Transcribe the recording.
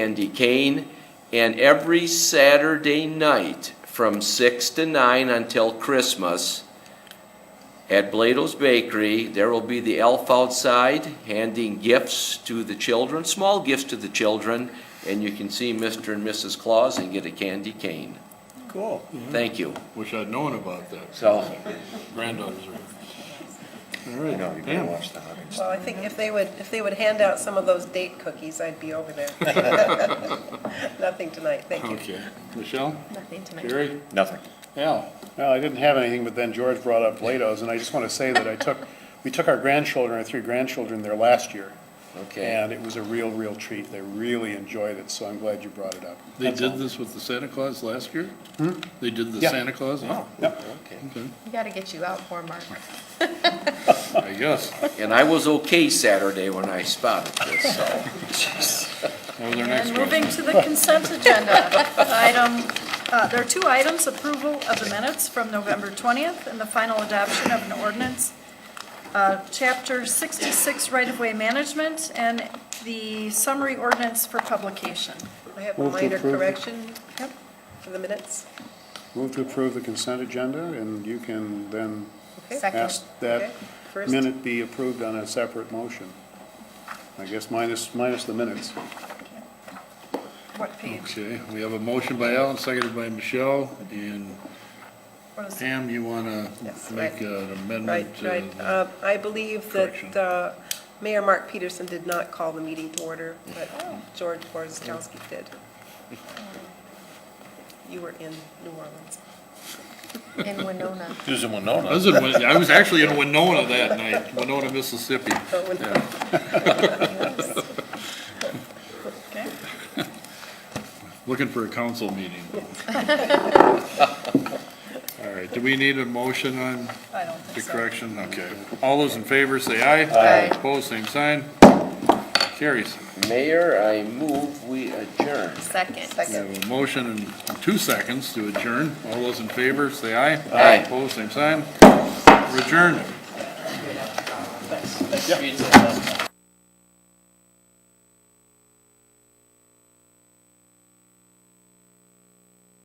Andy Kane, and every Saturday night from six to nine until Christmas at Blado's Bakery, there will be the elf outside handing gifts to the children, small gifts to the children, and you can see Mr. and Mrs. Claus and get a candy cane. Cool. Thank you. Wish I'd known about that. So, Granddaughters are. All I know, you right, better Pam. watch the hunting Well, I think if they would, if they would hand out some of those date cookies, I'd be over there. Nothing tonight, thank you. Okay. Michelle? Nothing tonight. Jerry? Nothing. Al? Well, I didn't have anything, but then George brought up Play-Dohs, and I just want to say that I took, we took our grandchildren, our three grandchildren there last year, okay. and it was a real, real treat. They really enjoyed it, so I'm glad you brought it up. They That's all. did this with the Santa Claus last year? They did the Yeah. Santa Claus? Oh, Yep. okay, We gotta get you out more, Mark. I guess. And I was okay Saturday when I spotted this, so. That was our next And question. moving to the consent agenda, item, uh, there are two items, approval of the minutes from November 20th and the final adoption of an ordinance, uh, Chapter 66 right-of-way management and the summary ordinance for publication. I have a minor correction Yep. for the minutes. Move to approve the consent agenda, and you can then Okay. Second. ask Okay. that First. minute be approved on a separate motion. I guess minus, minus the minutes. What page? Okay, we have a motion by Al and seconded by Michelle, and What is it? Pam, you want Yes, to make right. an Right, amendment to right. the- Uh, I believe Correction. that uh, Mayor Mark Peterson did not call the meeting to order, but Oh. George Borzakowski did. You were in New Orleans. In Winona. Who's in Winona? I was in Win- I was actually in Winona that night, Winona, Mississippi. So when- Okay. Looking for a council meeting. All right, do we need a motion on I don't think the so. correction? Okay. All those in favor, say aye. Aye. Opposed, same sign. Carries. Mayor, I move we adjourn. Second. We have a motion and two seconds to adjourn. All those in favor, say aye. Aye. Opposed, same sign. We're adjourned.